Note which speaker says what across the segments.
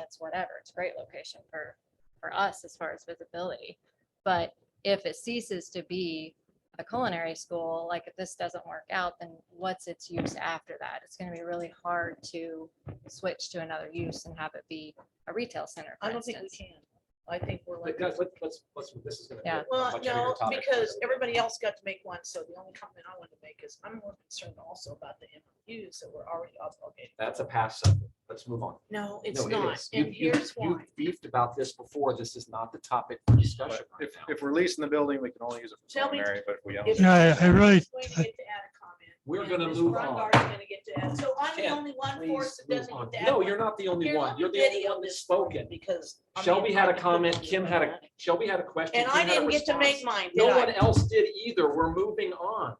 Speaker 1: it's whatever. It's a great location for, for us as far as visibility. But if it ceases to be a culinary school, like if this doesn't work out, then what's its use after that? It's gonna be really hard to switch to another use and have it be a retail center, for
Speaker 2: I don't think we
Speaker 1: instance.
Speaker 2: can. I think we're like.
Speaker 3: But guys, let- let's, let's, this is gonna be. a
Speaker 1: Yeah.
Speaker 2: Well,
Speaker 3: much bigger
Speaker 2: no,
Speaker 3: topic.
Speaker 2: because everybody else got to make one, so the only comment I want to make is I'm more concerned also about the MOUs that we're already obligated.
Speaker 3: That's a pass. sentence. Let's move on.
Speaker 2: No, it's
Speaker 3: No, it
Speaker 2: not,
Speaker 3: is. You-
Speaker 2: and
Speaker 3: you-
Speaker 2: here's
Speaker 3: you
Speaker 2: why.
Speaker 3: Beefed about this before. This is not the topic for discussion
Speaker 4: But
Speaker 3: right
Speaker 4: If,
Speaker 3: now.
Speaker 4: if we're leasing the building, we can only use it for
Speaker 2: Tell me-
Speaker 4: culinary, but if we don't.
Speaker 2: If-
Speaker 5: Yeah, I- I really-
Speaker 2: Wayne get to add a comment,
Speaker 3: We're
Speaker 2: and
Speaker 3: gonna
Speaker 2: Ms.
Speaker 3: move
Speaker 2: Brungart's gonna get to add- So I'm the
Speaker 3: Ken,
Speaker 2: only one for us
Speaker 3: Please
Speaker 2: that
Speaker 3: move
Speaker 2: doesn't
Speaker 3: on.
Speaker 2: get to add.
Speaker 3: No,
Speaker 2: one.
Speaker 3: you're not the only
Speaker 2: Here, let
Speaker 3: one.
Speaker 2: me
Speaker 3: You're the only
Speaker 2: video
Speaker 3: one that's
Speaker 2: this one
Speaker 3: spoken.
Speaker 2: Because. I'm
Speaker 3: Shelby had a
Speaker 2: being kind
Speaker 3: comment,
Speaker 2: to
Speaker 3: Kim had a, Shelby had a question.
Speaker 2: And I
Speaker 3: Kim had a
Speaker 2: didn't get to make
Speaker 3: response.
Speaker 2: mine, did
Speaker 3: No one
Speaker 2: I?
Speaker 3: else did either. We're moving on.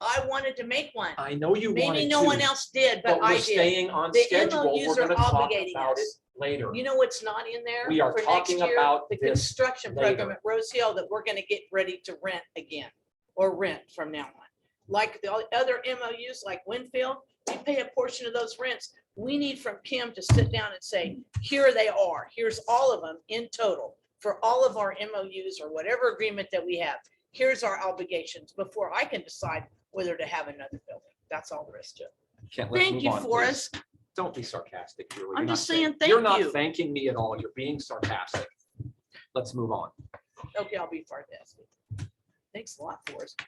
Speaker 2: I wanted to make one.
Speaker 3: I know you wanted to.
Speaker 2: Maybe no one else did,
Speaker 3: But
Speaker 2: but
Speaker 3: we're
Speaker 2: I did.
Speaker 3: staying on
Speaker 2: The
Speaker 3: schedule. We're
Speaker 2: MOUs are
Speaker 3: gonna talk
Speaker 2: obligating
Speaker 3: about it
Speaker 2: us.
Speaker 3: later.
Speaker 2: You know what's not in there?
Speaker 3: We are
Speaker 2: for next
Speaker 3: talking
Speaker 2: year?
Speaker 3: about
Speaker 2: The
Speaker 3: this
Speaker 2: construction program
Speaker 3: later.
Speaker 2: at Rose Hill that we're gonna get ready to rent again, or rent from now on. Like the other MOUs like Winfield, we pay a portion of those rents. We need from Kim to sit down and say, here they are, here's all of them in total for all of our MOUs or whatever agreement that we have. Here's our obligations before I can decide whether to have another building. That's all there is to it.
Speaker 3: Kent, let's
Speaker 2: Thank
Speaker 3: move
Speaker 2: you,
Speaker 3: on, please.
Speaker 2: Forrest.
Speaker 3: Don't be sarcastic. Julie. You're
Speaker 2: I'm
Speaker 3: not
Speaker 2: just saying thank
Speaker 3: You're not
Speaker 2: you.
Speaker 3: thanking me at all. You're being sarcastic. Let's move on.
Speaker 2: Okay, I'll be far best. Thanks a lot, Forrest.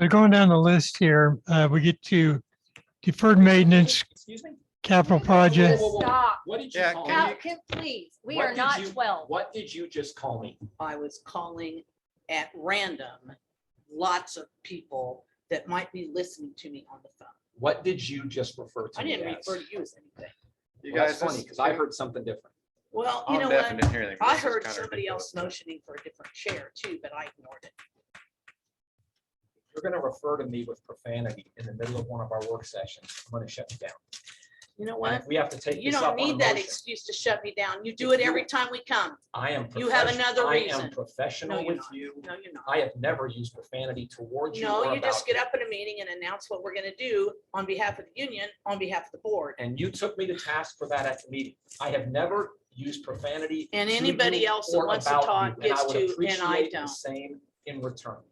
Speaker 5: So going down the list here, uh, we get to deferred maintenance,
Speaker 3: Excuse me?
Speaker 5: capital project.
Speaker 3: Whoa, whoa, whoa.
Speaker 1: Stop.
Speaker 3: What did you
Speaker 4: Yeah,
Speaker 3: call
Speaker 4: can
Speaker 1: Now,
Speaker 3: me?
Speaker 4: you-
Speaker 1: Kim, please, we
Speaker 3: What
Speaker 1: are
Speaker 3: did
Speaker 1: not
Speaker 3: you-
Speaker 1: twelve.
Speaker 3: What did you just call me?
Speaker 2: I was calling at random lots of people that might be listening to me on the phone.
Speaker 3: What did you just refer to
Speaker 2: I
Speaker 3: me
Speaker 2: didn't
Speaker 3: as?
Speaker 2: refer to you as anything.
Speaker 4: You
Speaker 3: Well, That's
Speaker 4: guys, this
Speaker 3: funny,
Speaker 4: is
Speaker 3: because I
Speaker 4: kinda-
Speaker 3: heard something different.
Speaker 2: Well, you
Speaker 4: I'm
Speaker 2: know
Speaker 4: deaf and
Speaker 2: what?
Speaker 4: didn't hear anything, but
Speaker 2: I
Speaker 4: this is
Speaker 2: heard
Speaker 4: kinda
Speaker 2: somebody else
Speaker 4: ridiculous.
Speaker 2: motioning for a different chair too, but I ignored it.
Speaker 3: You're going to refer to me with profanity in the middle of one of our work sessions. I'm going to shut you down.
Speaker 2: You know
Speaker 3: And
Speaker 2: what?
Speaker 3: if We have to take
Speaker 2: You
Speaker 3: this up
Speaker 2: don't
Speaker 3: on a
Speaker 2: need that
Speaker 3: motion.
Speaker 2: excuse to shut me down. You do
Speaker 3: If
Speaker 2: it
Speaker 3: you-
Speaker 2: every time we come.
Speaker 3: I am.
Speaker 2: You have
Speaker 3: profession-
Speaker 2: another
Speaker 3: I am
Speaker 2: reason. No,
Speaker 3: professional
Speaker 2: you're
Speaker 3: with
Speaker 2: not.
Speaker 3: you.
Speaker 2: No, you're not.
Speaker 3: I have never used profanity towards you
Speaker 2: No,
Speaker 3: or
Speaker 2: you just
Speaker 3: about
Speaker 2: get up at a meeting and announce what we're gonna do on behalf of the union, on behalf of the board.
Speaker 3: and you took me to task for that at the meeting. I have never used profanity.
Speaker 2: And
Speaker 3: to
Speaker 2: anybody
Speaker 3: you
Speaker 2: else that
Speaker 3: or
Speaker 2: wants to
Speaker 3: about you,
Speaker 2: talk
Speaker 3: and I
Speaker 2: gets
Speaker 3: would
Speaker 2: to, and I
Speaker 3: appreciate the
Speaker 2: don't.
Speaker 3: Same in return.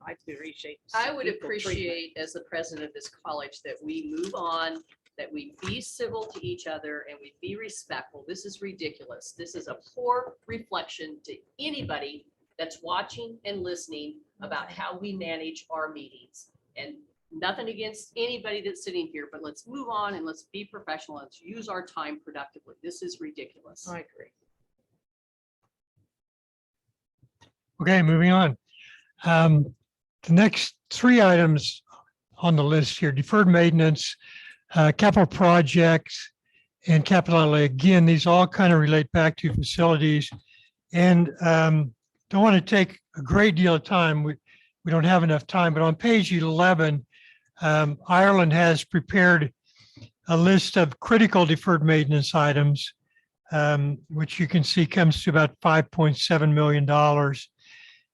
Speaker 2: I appreciate.
Speaker 6: I would
Speaker 2: equal treatment.
Speaker 6: appreciate, as the president of this college, that we move on, that we be civil to each other and we be respectful. This is ridiculous. This is a poor reflection to anybody that's watching and listening about how we manage our meetings. And nothing against anybody that's sitting here, but let's move on and let's be professional. Let's use our time productively. This is ridiculous.
Speaker 2: I agree.
Speaker 5: Okay, moving on. Um, The next three items on the list here, deferred maintenance, uh, capital projects, and capital outlay. Again, these all kind of relate back to facilities. And um, don't want to take a great deal of time. We, we don't have enough time, but on page 11, um, Ireland has prepared a list of critical deferred maintenance items, um, which you can see comes to about $5.7 million.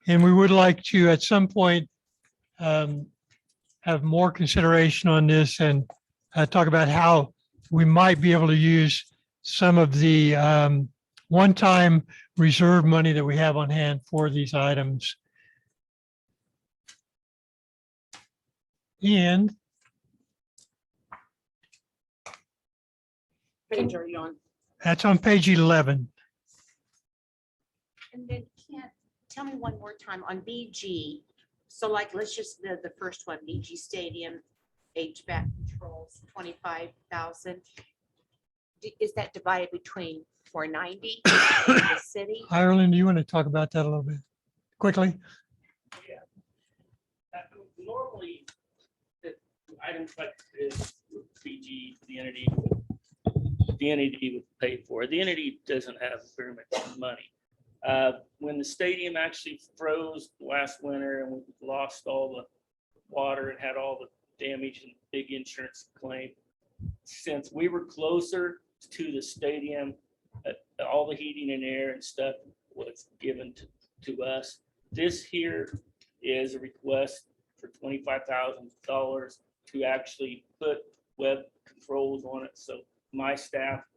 Speaker 5: And we would like to, at some point, um, have more consideration on this and uh, talk about how we might be able to use some of the um, one-time reserve money that we have on hand for these items. And
Speaker 2: Page, are you on?
Speaker 5: that's on page 11.
Speaker 7: And then can't, tell me one more time on BG. So like, let's just, the, the first one, BG Stadium, HVAC controls, twenty-five thousand. Is that divided between four ninety and the city?
Speaker 5: Ireland, do you want to talk about that a little bit quickly?
Speaker 8: Uh, Normally, the items like this, BG, the entity, the entity would pay for it. The entity doesn't have very much money. Uh, When the stadium actually froze last winter and we lost all the water and had all the damage and big insurance claim, since we were closer to the stadium, uh, all the heating and air and stuff was given to, to us. This here is a request for twenty-five thousand dollars to actually put web controls on it, so my staff